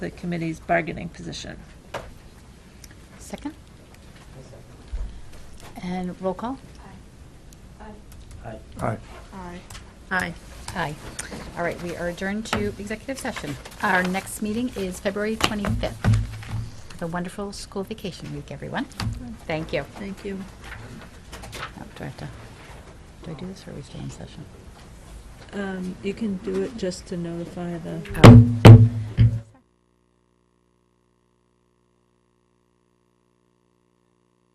the committee's bargaining position. Second? And roll call? Aye. Aye. Aye. Aye. All right, we are adjourned to executive session. Our next meeting is February 25th. Have a wonderful school vacation week, everyone. Thank you. Thank you. Oh, Do I have to, do I do this or are we still in session? Um, You can do it just to notify the Oh,